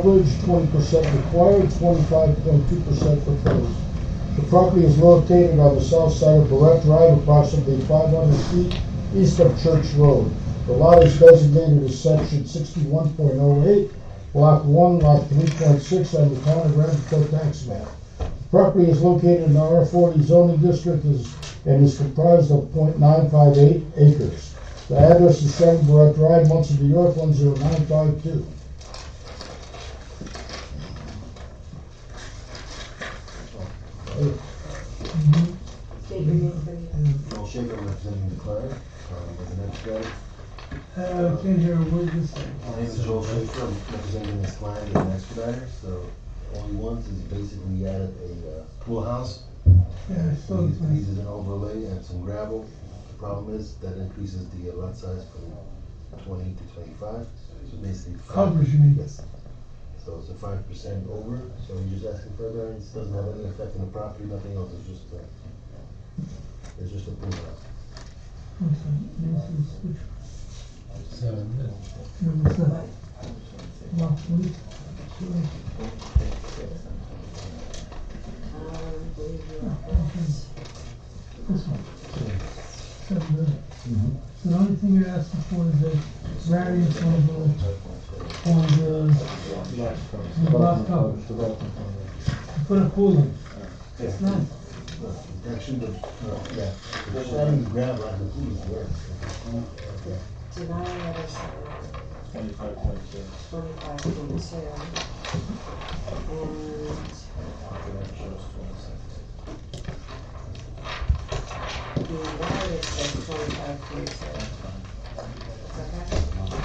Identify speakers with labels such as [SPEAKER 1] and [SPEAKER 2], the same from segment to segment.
[SPEAKER 1] Coverage, twenty percent required, twenty-five point two percent proposed. The property is located on the south side of Barrett Drive, approximately five hundred feet east of Church Road. The lot is designated as section sixty-one point oh eight, block one, lot three point six on the town of Rappahannock tax map. The Property is located in the R forty zoning district is, and is comprised of 0.958 acres. The address is seven Barrett Drive, Muncie, New York, one zero nine five two.
[SPEAKER 2] State your name for the-
[SPEAKER 3] Paul Shaker representing the clerk, uh, with the next guy.
[SPEAKER 4] Uh, can't hear a word you say.
[SPEAKER 3] My name is Joel Schaefer, I'm representing this client as an expediter, so all he wants is basically he added a uh, pool house.
[SPEAKER 4] Yeah, I saw
[SPEAKER 3] He's,
[SPEAKER 4] this one.
[SPEAKER 3] he's an overlay and some gravel. The problem is that increases the lot size from twenty to twenty-five, so basically. five-
[SPEAKER 4] Coverage, you mean?
[SPEAKER 3] Yes. So it's a five percent over, so he's just asking for a variance, doesn't have any effect on the property, nothing else, it's just a, it's just a pool house.
[SPEAKER 4] One second. This is which-
[SPEAKER 5] Seven.
[SPEAKER 4] number seven. Lot three. Sure.
[SPEAKER 2] um, believe it or not.
[SPEAKER 4] This one. Seven, really. So the only thing you're asking for is a variance on the, on the, on the lot cover. You Put a pool in. It's nice.
[SPEAKER 3] Actually, the, uh, yeah, the shiny gravel on the pool is worse.
[SPEAKER 2] Deny letter seven,
[SPEAKER 5] Twenty-five point two.
[SPEAKER 2] twenty-five point two. And the wireless says twenty-five point two. Okay?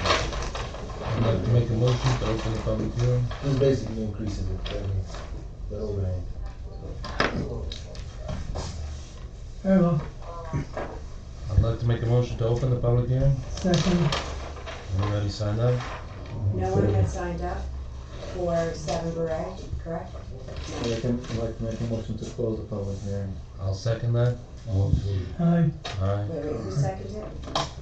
[SPEAKER 5] I'd like to make a motion to open the public hearing.
[SPEAKER 3] This basically increases it, I mean, the overhang.
[SPEAKER 4] Very well.
[SPEAKER 5] I'd like to make a motion to open the public hearing.
[SPEAKER 4] Second,
[SPEAKER 5] Anybody signed up?
[SPEAKER 2] No one had signed up for seven beret, correct?
[SPEAKER 6] I'd like to make a motion to close the public hearing.
[SPEAKER 5] I'll second that.
[SPEAKER 4] I,
[SPEAKER 5] Aye,
[SPEAKER 2] Wait, wait, who seconded it?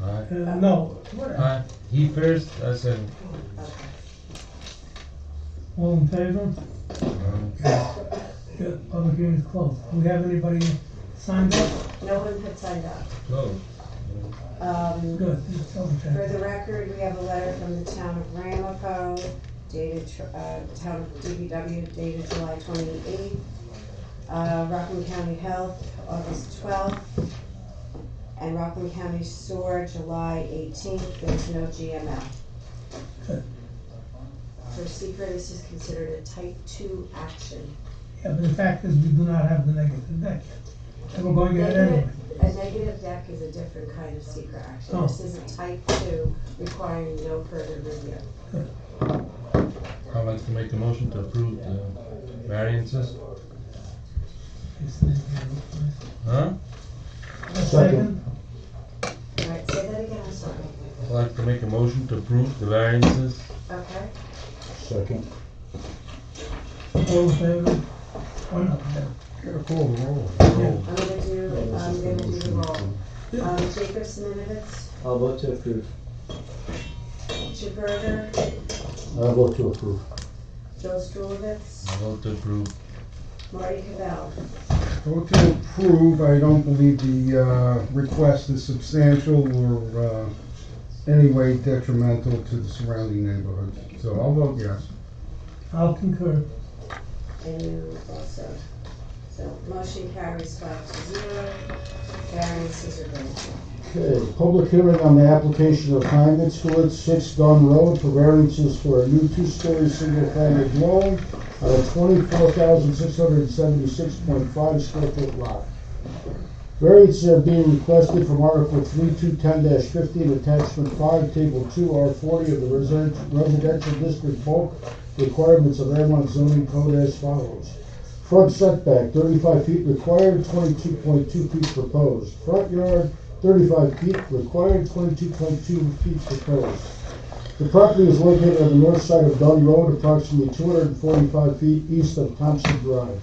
[SPEAKER 5] aye.
[SPEAKER 4] uh, no,
[SPEAKER 5] Aye, he first, I second.
[SPEAKER 4] all in favor?
[SPEAKER 5] Aye.
[SPEAKER 4] Yeah, public hearing is closed. Do we have anybody signed up?
[SPEAKER 2] No one had signed up.
[SPEAKER 5] Close.
[SPEAKER 2] Um,
[SPEAKER 4] Good, it's
[SPEAKER 2] For
[SPEAKER 4] okay.
[SPEAKER 2] the record, we have a letter from the town of Ramapo dated, uh, town of DPW dated July twenty-eighth. Uh, Rockland County Health, August twelfth. And Rockland County Sewer, July eighteenth, there's no GML. For secret, this is considered a type two action.
[SPEAKER 4] Yeah, but the fact is, we do not have the negative deck. And we're going to get it anyway.
[SPEAKER 2] Negative, a negative deck is a different kind of secret action. This is a type two requiring no further review.
[SPEAKER 5] I'd like to make a motion to approve the variances. Huh?
[SPEAKER 4] Second,
[SPEAKER 2] All right, say that again, I'm sorry.
[SPEAKER 5] I'd like to make a motion to approve the variances.
[SPEAKER 2] Okay?
[SPEAKER 1] Second.
[SPEAKER 4] all in favor? Or not?
[SPEAKER 5] Roll.
[SPEAKER 2] I'm gonna do, um, I'm gonna do the roll. Um, Jacob Simonovitz,
[SPEAKER 6] I'll vote to approve.
[SPEAKER 2] Chipberger,
[SPEAKER 1] I vote to approve.
[SPEAKER 2] Joe Strulovitz,
[SPEAKER 5] I vote to approve.
[SPEAKER 2] Marty Cavell.
[SPEAKER 7] Vote to approve, I don't believe the uh, request is substantial or uh, any way detrimental to the surrounding neighborhood, so I'll vote yes.
[SPEAKER 4] I'll concur.
[SPEAKER 2] And you also. So motion carries five to zero. Variances are granted.
[SPEAKER 1] Okay, public hearing on the application of Hyman Stewart, Six Gun Road, for variances for a new two-story single-family dwelling on a twenty-four thousand six hundred and seventy-six point five square foot lot. Variances are being requested from Article three two ten fifteen, attachment five, table two, R forty of the Residen- residential district bulk requirements of Airmont zoning code as follows. Front setback, thirty-five feet required, twenty-two point two feet proposed. Front yard, thirty-five feet required, twenty-two point two feet proposed. The property is located on the north side of Dunn Road, approximately two hundred and forty-five feet east of Thompson Drive.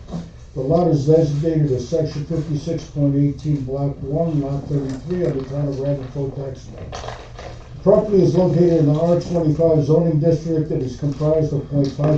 [SPEAKER 1] The lot is designated as section fifty-six point eighteen, block one, lot thirty-three, of the town of Ramapo tax map. Property is located in the R twenty-five zoning district. It is comprised of 0.56